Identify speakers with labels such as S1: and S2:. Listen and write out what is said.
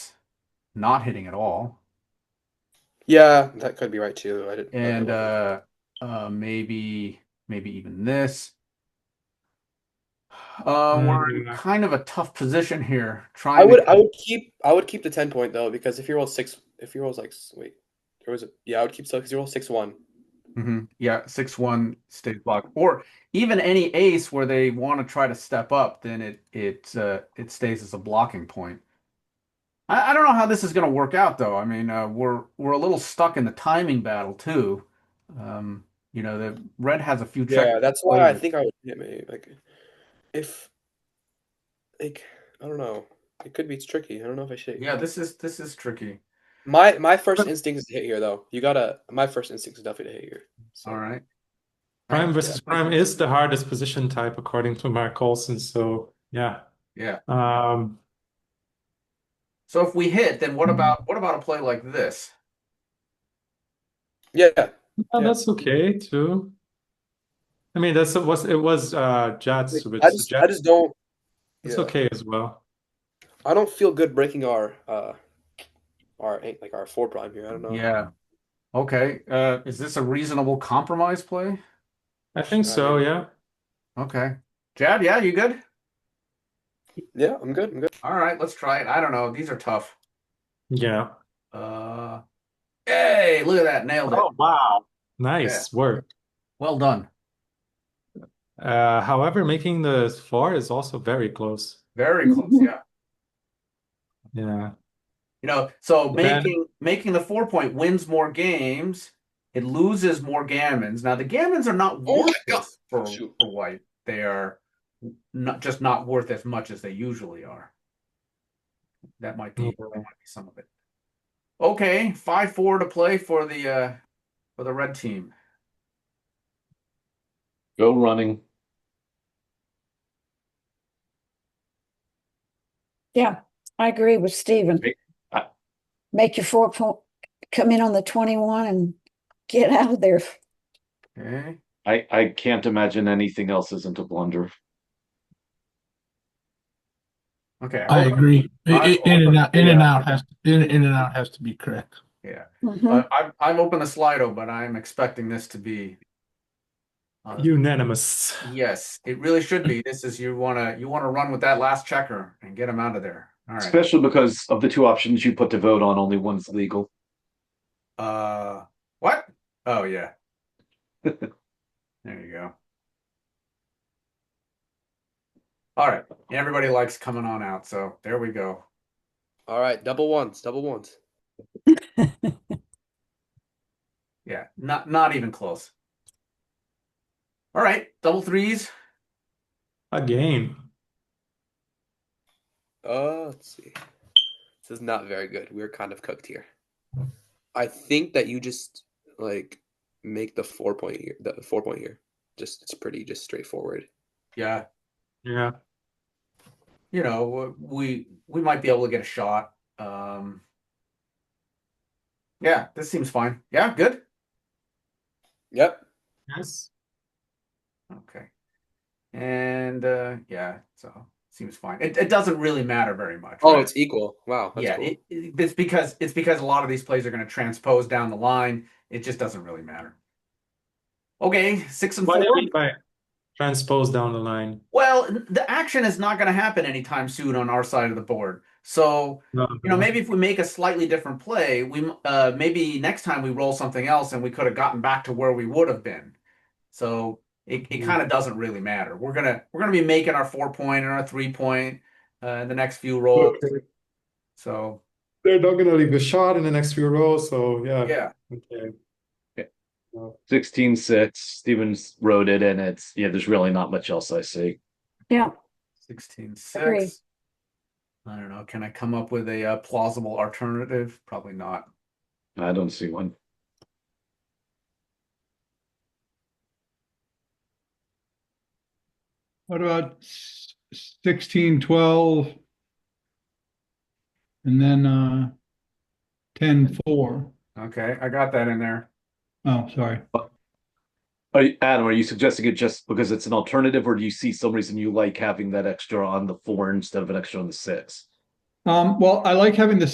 S1: not hitting at all.
S2: Yeah, that could be right too. I didn't. I
S1: And
S2: wasn't-
S1: uh, uh, maybe maybe even this. Um, we're in
S3: Mm.
S1: kind of a tough position here. Trying.
S2: Hmm. I would
S1: to,
S2: I would keep I would keep the ten point though because if you roll six if you roll like s- wait there was a yeah I would keep so because you roll six one
S1: Mhm. Yeah, six one stays blocked, or even any ace where they want to try to step up, then it it uh, it stays as a blocking point. I, I don't know how this is going to work out though. I mean, uh, we're we're a little stuck in the timing battle too. Um, you know, the red has a few check.
S2: yeah that's why I
S1: later.
S2: think I would hit me like if like I don't know it could be it's tricky I don't know if I should
S1: Yeah, this is this is tricky.
S2: my my first instinct is to hit here though you gotta my first instinct is definitely to hit here so
S1: All right.
S3: Prime versus prime is the hardest position type according to Mark Olson. So yeah.
S1: Yeah.
S3: Um,
S1: So if we hit, then what
S3: Mhm.
S1: about what about a play like this?
S2: yeah yeah
S3: yeah,
S2: Yeah.
S3: that's okay too. I mean, that's it was it was uh Jets, which
S2: I just I just don't
S3: it's
S2: yeah.
S3: okay as well.
S2: I don't feel good breaking our uh our eight like our four prime here I don't know
S1: Yeah. Okay. Uh, is this a reasonable compromise play?
S3: I think
S2: Uh,
S3: so, yeah.
S1: Okay. Jad, yeah, you good?
S2: yeah I'm good I'm good
S1: All right, let's try it. I don't know. These are tough.
S3: Yeah.
S1: Uh, hey, look at that. Nailed it.
S3: Oh. wow. Nice work.
S1: Well done.
S3: Uh, however, making the four is also very close.
S1: Very close. Yeah.
S3: Yeah.
S1: You know, so
S3: Then-
S1: making making the four point wins more games. It loses more gammons. Now the gammons are not
S2: Oh my
S1: worth
S2: God.
S1: for,
S2: Shoot.
S1: for white. They are not just not worth as much as they usually are. That might be that might be some of it. Okay, five four to play for the uh for the red team.
S4: Go running.
S5: I agree with Stephen.
S4: Make- I-
S5: Make your four point, come in on the twenty-one and get out of there.
S1: Okay.
S4: I, I can't imagine anything else isn't a blunder.
S1: Okay.
S6: I
S1: hold on.
S6: agree. I-
S1: I-
S6: I- In and out, in and
S1: yeah.
S6: out has, in, in and out has to be correct.
S5: Mhm.
S1: Uh, I've I've opened the Slido, but I'm expecting this to be. uh,
S3: Unanimous.
S1: yes, it really should be. This is you wanna you wanna run with that last checker and get him out of there. All right.
S4: Especially because of the two options you put to vote on, only one's legal.
S1: Uh, what? Oh yeah. There you go. All right. Everybody likes coming on out, so there we go.
S2: all right double ones double ones
S1: Yeah, not not even close. All right, double threes.
S3: Again.
S2: Uh, let's see. This is not very good. We're kind of cooked here. I think that you just like make the four point here. The four point here. Just it's pretty just straightforward.
S1: Yeah,
S3: Yeah.
S1: you know, we we might be able to get a shot. Um, yeah, this seems fine. Yeah, good.
S2: Yep.
S3: Yes.
S1: Okay, and uh, yeah, so seems fine. It, it doesn't really matter very much.
S2: Oh,
S1: right?
S2: it's equal. Wow. That's
S1: yeah,
S2: cool.
S1: it, it- it's because it's because a lot of these plays are going to transpose down the line. It just doesn't really matter. Okay, six and
S3: What do
S1: four.
S3: you mean by transpose down the line?
S1: Well, the action is not going to happen anytime soon on our side of the board. So you know, maybe if we make a slightly different play, we uh, maybe next time we roll something else and we could have gotten back to where we would have been. So it, it
S3: Mhm.
S1: kind of doesn't really matter. We're gonna we're gonna be making our four point and our three point uh, in the next few rolls. So
S3: They're not gonna leave a shot in the next few rows, so yeah.
S1: yeah,
S3: Okay.
S4: Sixteen six, Stevens wrote it and it's, yeah, there's really not much else I see.
S5: Yeah,
S1: 16
S5: Agree.
S1: 6. I don't know. Can I come up with a uh, plausible alternative? Probably not.
S4: I don't see one.
S7: What about s- sixteen, twelve? And then, uh, ten, four.
S1: Okay, I got that in there.
S7: Oh, sorry.
S4: Are you, Adam, are you suggesting it just because it's an alternative or do you see some reason you like having that extra on the four instead of an extra on the six?
S7: Um, well, I like having the